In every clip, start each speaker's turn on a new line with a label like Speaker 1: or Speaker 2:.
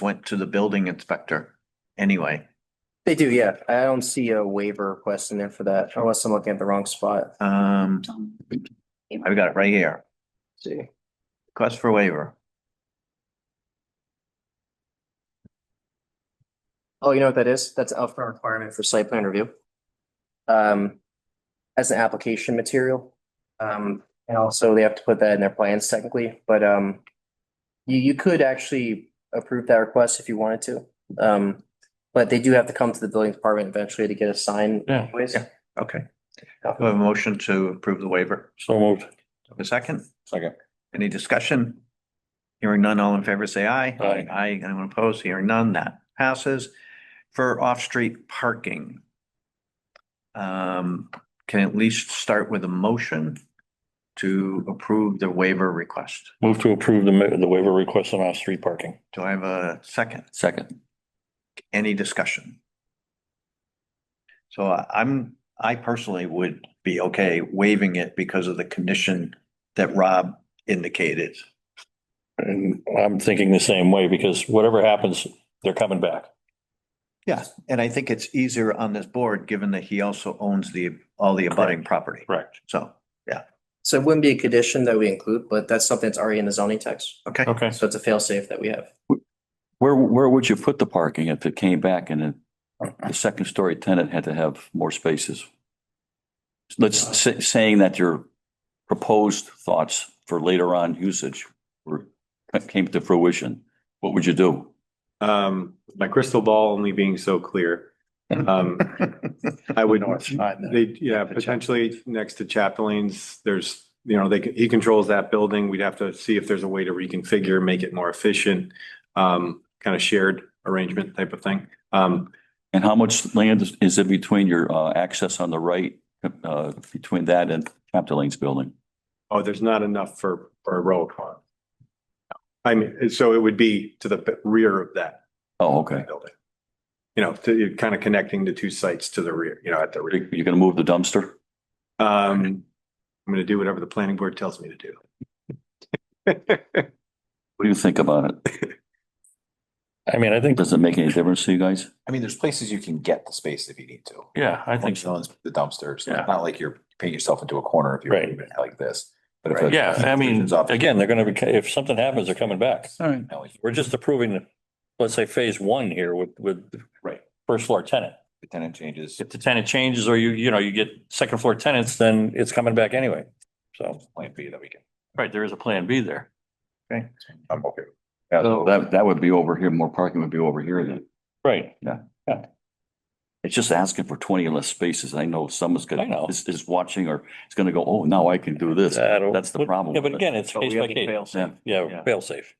Speaker 1: went to the building inspector anyway.
Speaker 2: They do, yeah. I don't see a waiver request in there for that unless I'm looking at the wrong spot.
Speaker 1: Um,
Speaker 3: Tom.
Speaker 1: I've got it right here.
Speaker 2: See,
Speaker 1: Request for waiver.
Speaker 2: oh, you know what that is? That's a for requirement for site plan review. Um, as an application material. Um, and also they have to put that in their plans technically, but um, you, you could actually approve that request if you wanted to. Um, but they do have to come to the building department eventually to get a sign
Speaker 4: Yeah.
Speaker 2: anyways.
Speaker 1: Yeah. Okay. Do I have a motion to approve the waiver?
Speaker 4: So moved.
Speaker 1: A second?
Speaker 4: Second.
Speaker 1: Any discussion? Hearing none, all in favor, say aye.
Speaker 4: Aye.
Speaker 1: Aye, anyone opposed? Hearing none, that passes. For off-street parking. Um, can at least start with a motion to approve the waiver request.
Speaker 4: Move to approve the, ma- the waiver request on off-street parking.
Speaker 1: Do I have a second?
Speaker 4: Second.
Speaker 1: Any discussion? So I- I'm, I personally would be okay waiving it because of the condition that Rob indicated.
Speaker 4: And I'm thinking the same way because whatever happens, they're coming back.
Speaker 1: Yeah, and I think it's easier on this board, given that he also owns the, all the abutting property.
Speaker 4: Correct.
Speaker 1: So,
Speaker 2: So it wouldn't be a condition that we include, but that's something that's already in the zoning text.
Speaker 1: okay,
Speaker 4: Okay.
Speaker 2: So it's a fail-safe that we have.
Speaker 5: Where, where would you put the parking if it came back and then the second story tenant had to have more spaces? Let's say, saying that your proposed thoughts for later on usage were, came to fruition, what would you do?
Speaker 6: Um, my crystal ball only being so clear. Um, I would, they, yeah, potentially next to Chapeline's, there's, you know, they, he controls that building. We'd have to see if there's a way to reconfigure, make it more efficient. Um, kind of shared arrangement type of thing. Um,
Speaker 5: And how much land is- is in between your uh, access on the right, uh, between that and Chapter Lane's building?
Speaker 6: oh, there's not enough for, for a row car. I mean, so it would be to the rear of that
Speaker 5: Oh, okay.
Speaker 6: building. You know, to, kind of connecting the two sites to the rear, you know, at the rear.
Speaker 5: You're going to move the dumpster?
Speaker 6: Um, I'm gonna do whatever the planning board tells me to do.
Speaker 5: What do you think about it?
Speaker 4: I mean, I think,
Speaker 5: Does it make any difference to you guys?
Speaker 7: I mean, there's places you can get the space if you need to.
Speaker 4: yeah, I think
Speaker 7: Like
Speaker 4: so.
Speaker 7: the dumpsters,
Speaker 4: Yeah.
Speaker 7: it's not like you're painting yourself into a corner if you're
Speaker 4: Right.
Speaker 7: moving it like this. But if a-
Speaker 4: Yeah, I mean,
Speaker 7: It's up-
Speaker 4: again, they're going to be, if something happens, they're coming back.
Speaker 5: All right.
Speaker 4: We're just approving, let's say, phase one here with, with.
Speaker 7: Right.
Speaker 4: First floor tenant.
Speaker 7: The tenant changes.
Speaker 4: If the tenant changes or you, you know, you get second floor tenants, then it's coming back anyway. So,
Speaker 7: Plan B that we can.
Speaker 4: right, there is a plan B there.
Speaker 7: I'm okay. with
Speaker 5: So That, that would be over here, more parking would be over here then.
Speaker 4: Right.
Speaker 5: It's just asking for twenty or less spaces. I know someone's
Speaker 4: I know.
Speaker 5: gonna, is, is watching or is gonna go, oh, now I can do this.
Speaker 4: That'll-
Speaker 5: That's the problem.
Speaker 4: Yeah, but again, it's
Speaker 1: But we
Speaker 4: case
Speaker 1: have
Speaker 4: by
Speaker 1: to
Speaker 4: case.
Speaker 1: fail safe.
Speaker 4: Yeah,
Speaker 1: Yeah.
Speaker 4: fail safe.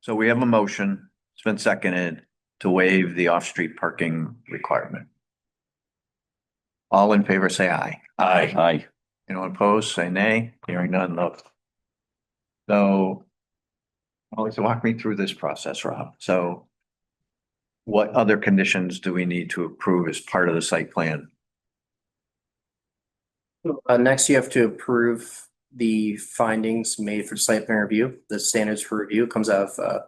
Speaker 1: so we have a motion, it's been seconded to waive the off-street parking requirement. All in favor, say aye.
Speaker 4: Aye.
Speaker 5: Aye.
Speaker 1: Anyone opposed, say nay. Hearing none, look. So. Always walk me through this process, Rob. So. What other conditions do we need to approve as part of the site plan?
Speaker 2: Uh, next, you have to approve the findings made for site plan review. The standards for review comes out of uh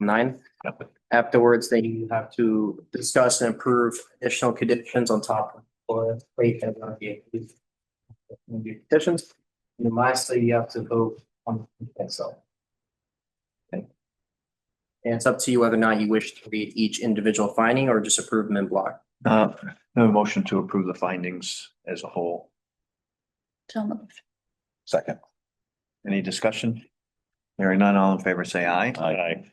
Speaker 2: nine. Afterwards, then you have to discuss and approve additional conditions on top of or wait and uh, the- the conditions. And lastly, you have to vote on itself. And it's up to you whether or not you wish to read each individual finding or just approve them in block.
Speaker 1: Uh, no motion to approve the findings as a whole.
Speaker 3: Tom.
Speaker 7: it. Second.
Speaker 1: Any discussion? Hearing none, all in favor, say aye.
Speaker 4: Aye.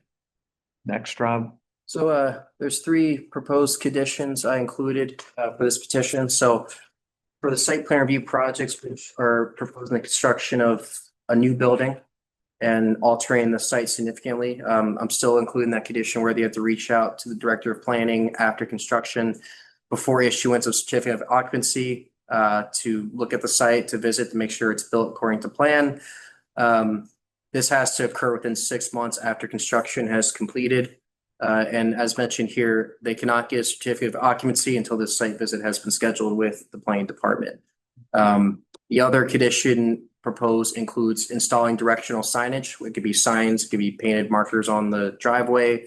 Speaker 1: Next, Rob?
Speaker 2: So uh, there's three proposed conditions I included uh for this petition, so. For the site plan review projects, which are proposing the construction of a new building. And altering the site significantly, um, I'm still including that condition where they have to reach out to the director of planning after construction. Before issuance of certificate of occupancy, uh, to look at the site, to visit, to make sure it's built according to plan. Um, this has to occur within six months after construction has completed. Uh, and as mentioned here, they cannot get a certificate of occupancy until this site visit has been scheduled with the planning department. Um, the other condition proposed includes installing directional signage. It could be signs, it could be painted markers on the driveway,